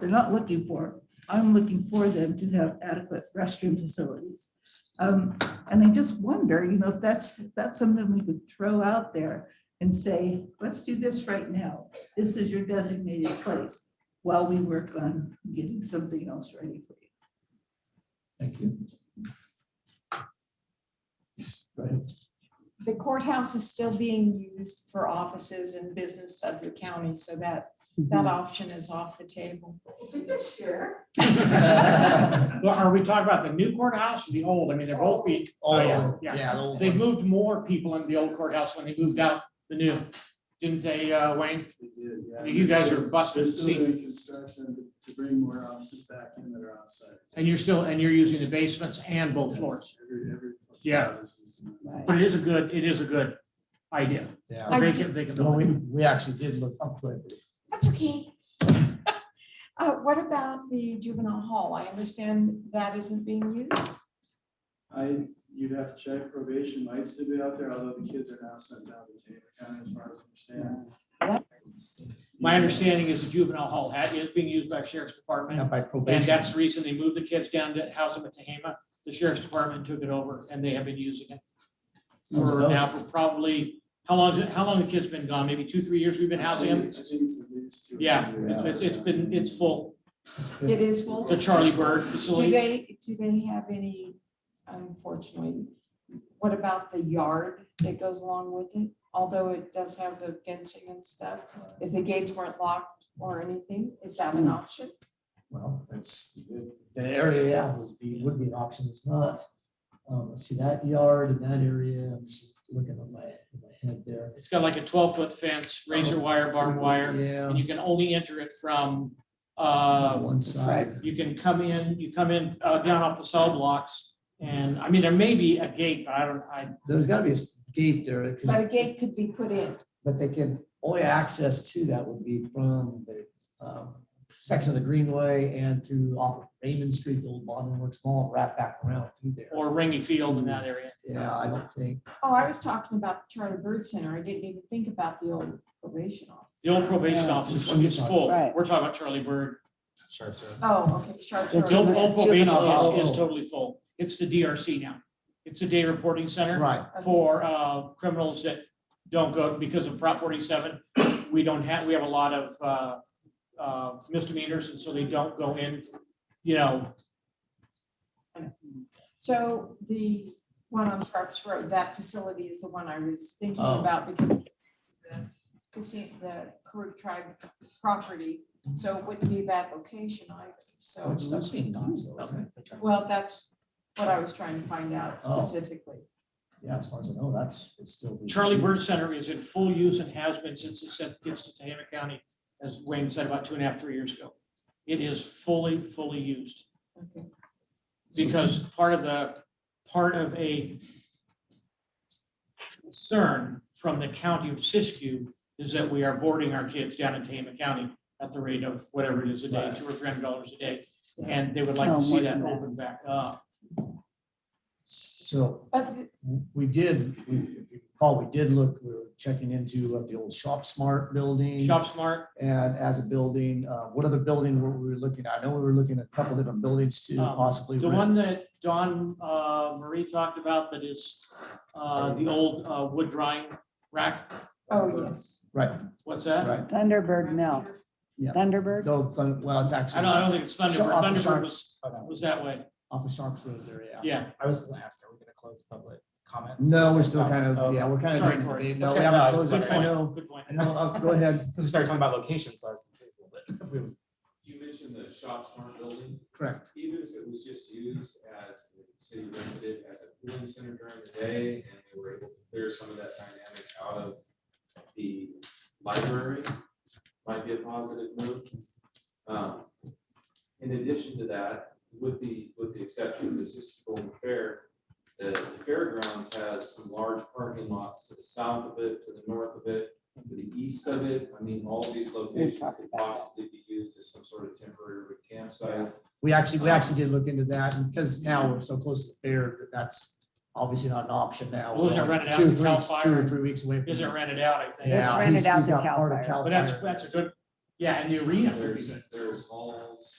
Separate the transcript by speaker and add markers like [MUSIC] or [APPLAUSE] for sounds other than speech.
Speaker 1: they're not looking for. I'm looking for them to have adequate restroom facilities. Um, And I just wonder, you know, if that's, if that's something we could throw out there and say, let's do this right now. This is your designated place while we work on getting something else ready for you.
Speaker 2: Thank you. Yes, go ahead.
Speaker 3: The courthouse is still being used for offices and business of the county, so that,
Speaker 4: Mm-hmm.
Speaker 3: that option is off the table.
Speaker 1: Sure.
Speaker 4: [LAUGHS]
Speaker 2: Oh,
Speaker 4: Well, are we talking about the new courthouse or the old? I mean, they're both be,
Speaker 2: Oh,
Speaker 4: Oh, yeah, yeah.
Speaker 2: yeah, the old
Speaker 4: they
Speaker 2: one.
Speaker 4: moved more people into the old courthouse when they moved out the new, didn't they, uh, Wayne? I think you guys are busting
Speaker 5: They're
Speaker 4: the
Speaker 5: still
Speaker 4: seat,
Speaker 5: doing construction to bring more offices back in that are outside.
Speaker 4: and you're still, and you're using the basements and both floors.
Speaker 5: Every, every. place
Speaker 4: Yeah.
Speaker 5: is used.
Speaker 4: But it is a good, it is a good idea.
Speaker 2: Yeah,
Speaker 3: I
Speaker 4: They
Speaker 3: do-
Speaker 4: can, they can.
Speaker 2: No, we, we actually did look, I'm glad.
Speaker 3: That's okay. [LAUGHS] Uh, what about the juvenile hall? I understand that isn't being used.
Speaker 5: I, you'd have to check probation might still be out there, although the kids are now sent down to Taylor County as far as I understand.
Speaker 4: My understanding is the juvenile hall had, is being used by the sheriff's department,
Speaker 2: Yeah, by
Speaker 4: and
Speaker 2: probation.
Speaker 4: that's the reason they moved the kids down to house them at Tehama. The sheriff's department took it over, and they have been using it.
Speaker 2: Sounds
Speaker 4: for
Speaker 2: about-
Speaker 4: now for probably, how long, is it- how long the kid's been gone? Maybe two, three years we've been housing
Speaker 5: I
Speaker 4: him?
Speaker 5: think it's at least two. or
Speaker 4: Yeah,
Speaker 5: three years.
Speaker 4: It's, it's- it's been, it's full.
Speaker 2: It's
Speaker 3: It
Speaker 2: been-
Speaker 3: is full.
Speaker 4: The Charlie Bird
Speaker 3: Do
Speaker 4: facility,
Speaker 3: they, do they have any, unfortunately, what about the yard that goes along with it? Although it does have the fencing and stuff, if the gates weren't locked or anything, is that
Speaker 4: Hmm.
Speaker 3: an option?
Speaker 2: Well, it's, the area, yeah, would be, would be an option, it's not. Um, let's see, that yard and that area, I'm just looking at my, at my head there.
Speaker 4: it's got like a twelve foot fence, razor wire, barbed wire,
Speaker 2: Yeah,
Speaker 4: and you can only enter it from, uh,
Speaker 2: one side.
Speaker 4: you can come in, you come in, uh, down off the cell blocks. And, I mean, there may be a gate, but I don't, I,
Speaker 2: There's gotta be a s- gate there, 'cause-
Speaker 3: But a gate could be put in.
Speaker 2: but they can, only access to that would be from the, um, section of the Greenway and to off of Raymond Street, the old Bond Works Mall, right back around through there.
Speaker 4: or Ringy Field in that area.
Speaker 2: Yeah, I don't think.
Speaker 3: Oh, I was talking about the Charlie Bird Center. I didn't even think about the old probation office.
Speaker 4: The old probation
Speaker 2: Yeah,
Speaker 4: office
Speaker 2: which one you
Speaker 4: is
Speaker 2: talking
Speaker 4: full.
Speaker 6: Right.
Speaker 4: We're talking about Charlie Bird.
Speaker 2: Sure, sir.
Speaker 3: Oh, okay, Charlie.
Speaker 6: It's
Speaker 3: Bird.
Speaker 4: The old
Speaker 6: Juvenile-
Speaker 4: old probation
Speaker 2: juvenile.
Speaker 4: is, is totally full. It's the DRC now. It's a day reporting center.
Speaker 2: Right,
Speaker 4: for uh, criminals that don't go because of Prop 47. We don't have, we have a lot of uh, uh, misdemeanors, and so they don't go in, you know,
Speaker 3: So the one on Sharps Road, that facility is the one I was thinking
Speaker 2: Oh.
Speaker 3: about because the- this is the Karuk tribe property, so it wouldn't be a bad location either,
Speaker 2: so
Speaker 3: so.
Speaker 2: it's not being used though, isn't it?
Speaker 3: Well, that's what I was trying to find out
Speaker 2: Oh.
Speaker 3: specifically.
Speaker 2: Yeah, as far as I know, that's, it's still. being
Speaker 4: Charlie
Speaker 2: used.
Speaker 4: Bird Center is in full use and has been since it sent- gets to Tehama County, as Wayne said about two and a half, three years ago. It is fully, fully used
Speaker 3: Okay.
Speaker 4: because part of the, part of a concern from the county of Siskiyou is that we are boarding our kids down in Tama County at the rate of whatever it is a day,
Speaker 2: Right.
Speaker 4: two or three hundred dollars a day.
Speaker 2: Yeah.
Speaker 4: And they would like
Speaker 6: Oh,
Speaker 4: to see
Speaker 6: more
Speaker 4: that
Speaker 6: than that.
Speaker 4: open back up.
Speaker 2: So
Speaker 3: But the-
Speaker 2: we did, we, if you recall, we did look, we were checking into uh, the old Shop Smart building.
Speaker 4: Shop Smart,
Speaker 2: And as a building, uh, what other building were we looking at? I know we were looking at a couple different buildings to
Speaker 4: Um,
Speaker 2: possibly.
Speaker 4: the
Speaker 2: rent.
Speaker 4: one that Dawn uh, Marie talked about that is uh, the old uh, wood drying rack,
Speaker 3: oh, yes.
Speaker 2: Right,
Speaker 4: what's that?
Speaker 2: right.
Speaker 6: Thunderbird Mill,
Speaker 2: Yeah.
Speaker 6: Thunderbird.
Speaker 2: No, Thun- well, it's actually.
Speaker 4: I don't, I don't think it's Thunderbird.
Speaker 2: Shop-
Speaker 4: Thunderbird
Speaker 2: Shop-
Speaker 4: was, was that way,
Speaker 2: Off of Sharps Road there, yeah.
Speaker 4: yeah.
Speaker 7: I was just gonna ask, are we gonna close public comment?
Speaker 2: No, we're still kind of, yeah, we're kind of.
Speaker 4: Sorry,
Speaker 2: doing-
Speaker 4: Cory.
Speaker 2: No,
Speaker 7: That's
Speaker 2: we
Speaker 7: okay.
Speaker 2: haven't
Speaker 7: No, it's
Speaker 2: closed
Speaker 4: Good
Speaker 2: it. I
Speaker 7: okay.
Speaker 2: know,
Speaker 4: point, good point.
Speaker 2: I know, uh, go ahead,
Speaker 4: [LAUGHS]
Speaker 7: Because we started talking about locations, so I was confused a little bit. We were-
Speaker 8: You mentioned the shops aren't building,
Speaker 2: correct.
Speaker 8: even if it was just used as, the city rented it as a cooling center during the day, and we were able to clear some of that dynamic out of the library, might be a positive move. Um, In addition to that, with the, with the exception of the Sister Golden Fair, the the fairgrounds has some large parking lots to the south of it, to the north of it, to the east of it. I mean, all these locations could possibly be used as some sort of temporary campsite.
Speaker 2: We actually, we actually did look into that and because now we're so close to the fair, that that's obviously not an option now.
Speaker 4: Well, is it
Speaker 2: We're
Speaker 4: rented out
Speaker 2: two,
Speaker 4: to
Speaker 2: three
Speaker 4: Cal
Speaker 2: weeks-
Speaker 4: Fire?
Speaker 2: Two or three weeks away. from
Speaker 4: Is it
Speaker 2: that.
Speaker 4: rented out, I think?
Speaker 2: Yeah,
Speaker 6: It's rented
Speaker 2: he's-
Speaker 6: out
Speaker 2: he's
Speaker 6: to
Speaker 2: got
Speaker 6: Cal
Speaker 2: part of
Speaker 6: Fire.
Speaker 2: Cal
Speaker 4: But that's,
Speaker 2: Fire.
Speaker 4: that's a good, Yeah, and the arena would be
Speaker 8: There's,
Speaker 4: good.
Speaker 8: there's halls,